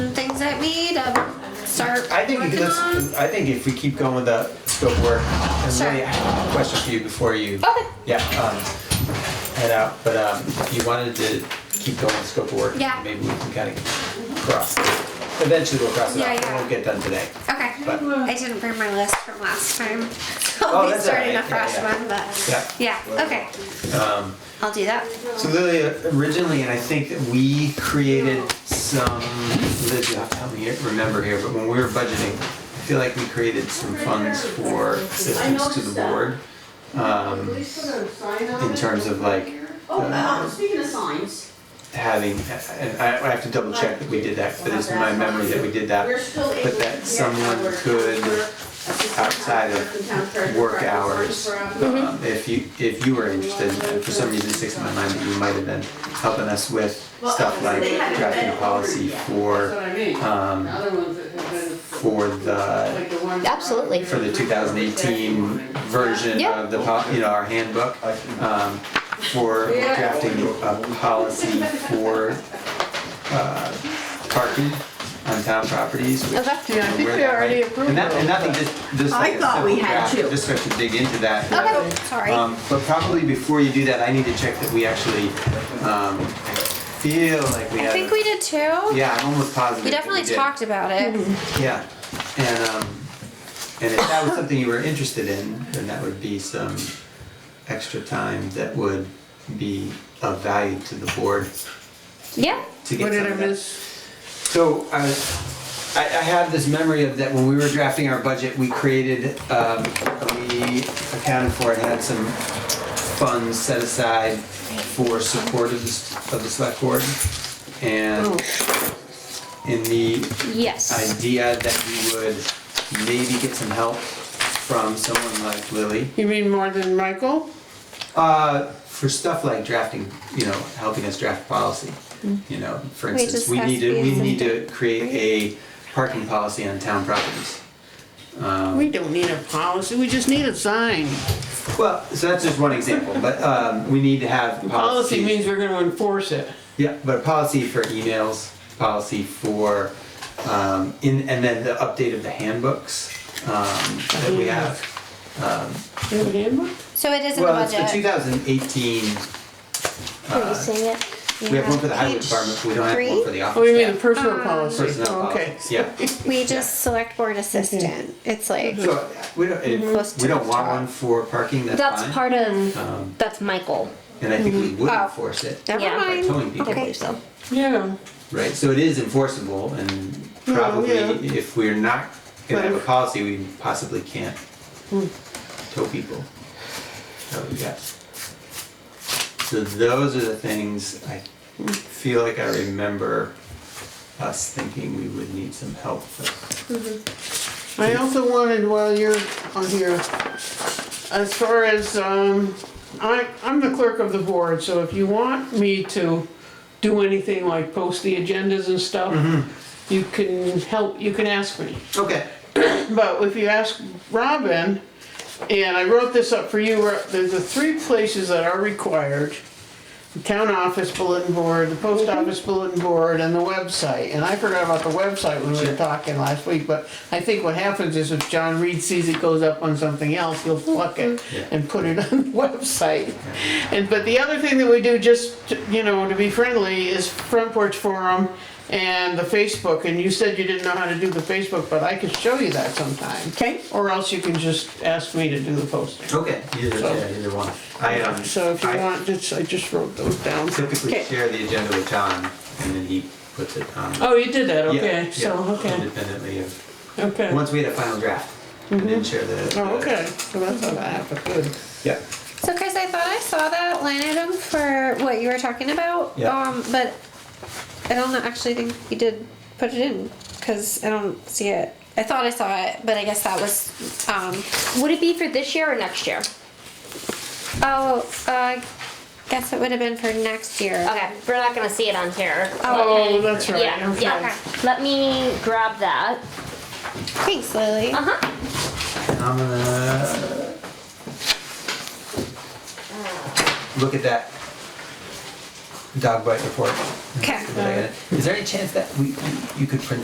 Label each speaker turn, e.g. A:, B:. A: at me to start
B: I think
A: working
B: let's,
A: on?
B: I think if we keep going with the scope work, and
A: Sure.
B: really, I have a question for you before you.
A: Okay.
B: Yeah, um, head out, but, um, you wanted to keep going with scope of work.
A: Yeah.
B: Maybe we can kind of cross, eventually we'll cross it
A: Yeah,
B: off, it
A: yeah.
B: won't get done today.
A: Okay.
B: But-
A: I didn't bring my list from last time. So
B: Oh,
A: I'll be
B: that's
A: starting a
B: alright. Yeah,
A: fresh
B: yeah.
A: one, but yeah.
B: Yeah.
A: okay.
B: Um,
A: I'll do that.
B: So Lily, originally, and I think that we created some, Liz, you'll have to help me here- remember here, but when we were budgeting, I feel like we created some funds for assistance to the board. Um, in terms of like,
C: Oh, uh,
B: uh,
C: speaking of signs,
B: having, and I, I have to double check that we did that, but it's my memory that we did that.
C: we're still able to.
B: But that
C: get
B: someone
C: our-
B: could,
C: our assistant
B: outside of
C: town clerk,
B: Work
C: town
B: hours,
C: treasurer,
B: um, if you, if you were interested, and for some reason it sticks in my mind that you might have been helping us with stuff like drafting a policy
C: That's
B: for,
C: what I mean. The
B: um,
C: other ones that have been,
B: for the,
C: like the ones.
D: Absolutely.
B: for the two thousand eighteen version
D: Yeah.
B: of the, po- you know, our handbook. um, for drafting a policy for, uh, parking on town properties, which
D: Okay.
E: Yeah, I think
B: where
E: we
B: that
E: already
B: might-
E: approved
B: And that, and
E: it.
B: nothing, just, just like a
C: thought we
B: simple
C: had
B: draft,
C: two.
B: just have to dig into that.
A: Okay. Sorry.
B: Um, but probably before you do that, I need to check that we actually, um, I feel like we
A: I
B: have.
A: think we did too. Yeah,
B: Yeah, I'm almost positive.
A: we
B: that
A: definitely
B: did. Mm-hmm.
A: talked about it.
B: Yeah, and, um, and if that was something you were interested in, then that would be some extra time that would be of value to the board
A: Yeah.
B: to get
E: What did I
B: some of that.
E: miss?
B: So, I, was- I, I have this memory of that when we were drafting our budget, we created, um, we accounted for and had some funds set aside for support of the, s- of the select board. And
E: Oh.
B: in the
D: Yes.
B: idea that we would maybe get some help from someone like Lily.
E: You mean more than Michael?
B: Uh, for stuff like drafting, you know, helping us draft policy.
A: Mm-hmm.
B: You know, for
A: Wait,
B: instance,
A: this
B: we
A: has
B: need
A: to
B: to,
A: be
B: we
A: some
B: need to
A: different-
B: create a parking policy on town properties. Um,
E: We don't need a policy, we just need a sign.
B: well, so that's just one example, but, um, we need to have
E: Policy means we're gonna enforce it.
B: Yeah, but a policy for emails, policy for, um, in, and then the update of the handbooks, um, that we have.
E: You have a handbook?
A: So it is in
B: Well,
A: the
B: it's for two
A: budget.
B: thousand eighteen,
D: Are you seeing it?
B: we have one for the highway
A: Page
B: department, but we don't have one for the office.
E: Oh, you mean the
B: staff.
E: personal policy?
B: Personnel
E: Oh, Okay.
B: policies, yeah. Mm-hmm.
D: We just select board assistant. It's like,
B: So, we don't,
D: Close
B: if we
D: to
B: don't
D: the
B: want
D: top.
B: one for parking, that's fine.
D: that's part of, Mm-hmm.
B: Um,
D: that's Michael.
B: and I think we would
A: Oh.
B: enforce it
D: Never
A: Yeah.
B: by
D: mind.
B: towing
D: I
B: people,
D: believe so.
E: Yeah,
B: right? So it is enforceable and probably
E: yeah.
B: if we're not gonna have a
E: Right.
B: policy, we possibly can't
D: Hmm.
B: tow people. So, yes. So those are the things I
D: Hmm.
B: feel like I remember us thinking we would need some help with.
E: I also wanted, while you're on here, as far as, um, I, I'm the clerk of the board, so if you want me to do anything like post the agendas and stuff, you can help, you can ask me.
B: Okay.
E: But if you ask Robin, and I wrote this up for you, Ro- there's the three places that are required. The town office bulletin board, the post office bulletin board, and the website. And I forgot about the website when we were talking last week, but I think what happens is if John Reed sees it goes up on something else, he'll pluck it
B: Yeah.
E: and put it on the website. And, but the other thing that we do, just, to- you know, to be friendly, is Front Porch Forum and the Facebook, and you said you didn't know how to do the Facebook, but I could show you that sometime.
C: Okay.
E: Or else you can just ask me to do the posting.
B: Okay. Either, yeah, either one. I um.
E: So if you
B: I
E: want, just, I just wrote those down.
B: Typically
E: Okay.
B: share the agenda with John, and then he puts it on.
E: Oh, you did that,
B: Yeah,
E: okay,
B: yeah,
E: so, okay,
B: Independently of.
E: okay.
B: Once we had a final draft, we didn't share the.
E: Oh,
B: the-
E: okay, so that's how that happened, good.
B: Yeah.
A: So Chris, I thought I saw that line item for what you were talking about.
B: Yeah.
A: Um, but I don't actually think you did put it in because I don't see it. I thought I saw it, but I guess that was um,
D: Would it be for this year or next year?
A: Oh, uh, guess it would have been for next year.
D: Okay, we're not gonna see it on here.
E: Oh, that's right,
D: Yeah,
E: okay.
D: yeah. Let me grab that.
A: Thanks, Lily.
D: Uh-huh.
B: I'm gonna. Look at that dog bite report.
A: Okay.
E: Uh-huh.
B: Is there any chance that we, you- you could print